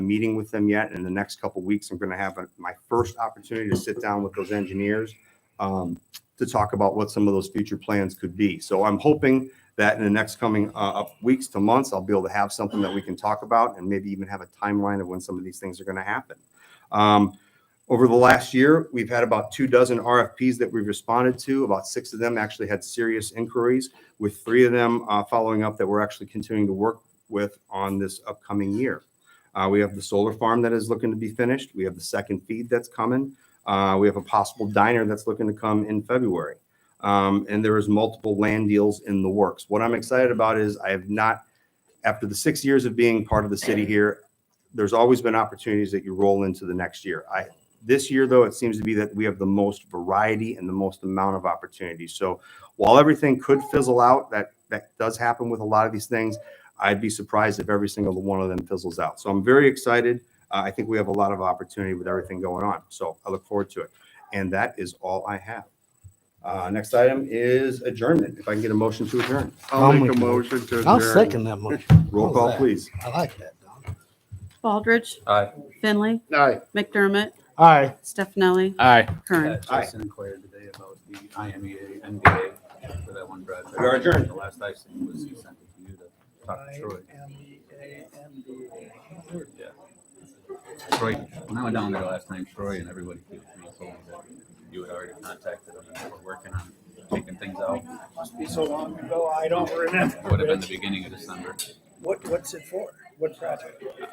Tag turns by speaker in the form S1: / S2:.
S1: meeting with them yet. In the next couple weeks, I'm going to have a- my first opportunity to sit down with those engineers um, to talk about what some of those future plans could be. So I'm hoping that in the next coming uh, up weeks to months, I'll be able to have something that we can talk about and maybe even have a timeline of when some of these things are going to happen. Um, over the last year, we've had about two dozen RFPs that we've responded to. About six of them actually had serious inquiries, with three of them uh, following up that we're actually continuing to work with on this upcoming year. Uh, we have the solar farm that is looking to be finished. We have the second feed that's coming. Uh, we have a possible diner that's looking to come in February. Um, and there is multiple land deals in the works. What I'm excited about is I have not, after the six years of being part of the city here, there's always been opportunities that you roll into the next year. I, this year, though, it seems to be that we have the most variety and the most amount of opportunities. So while everything could fizzle out, that that does happen with a lot of these things. I'd be surprised if every single one of them fizzles out. So I'm very excited. Uh, I think we have a lot of opportunity with everything going on. So I look forward to it. And that is all I have. Uh, next item is adjournment. If I can get a motion to adjourn,
S2: I'll
S3: I'll make
S2: make
S3: a
S2: a-
S3: motion to adjourn.
S2: I'll second that motion.
S1: roll
S2: What was
S1: call,
S2: that?
S1: please.
S2: I like that, Don.
S4: Baldridge.
S5: Aye.
S4: Finley.
S3: Aye.
S4: McDermott.
S2: All right.
S4: Stefanelli,
S6: Aye.
S4: Kern.
S1: Aye.
S5: Jason inquired today about the E IMEA, MBA for that one project.
S1: We are adjourned.
S5: The last I seen was he sent it to you to talk to Troy. Yeah. Troy, when I went down there last time, Troy and everybody came to me and told me that you had already contacted them and were working on taking things out.
S7: Must be so long ago, I don't remember.
S5: Would have been the beginning of December.
S7: What, what's it for? What project?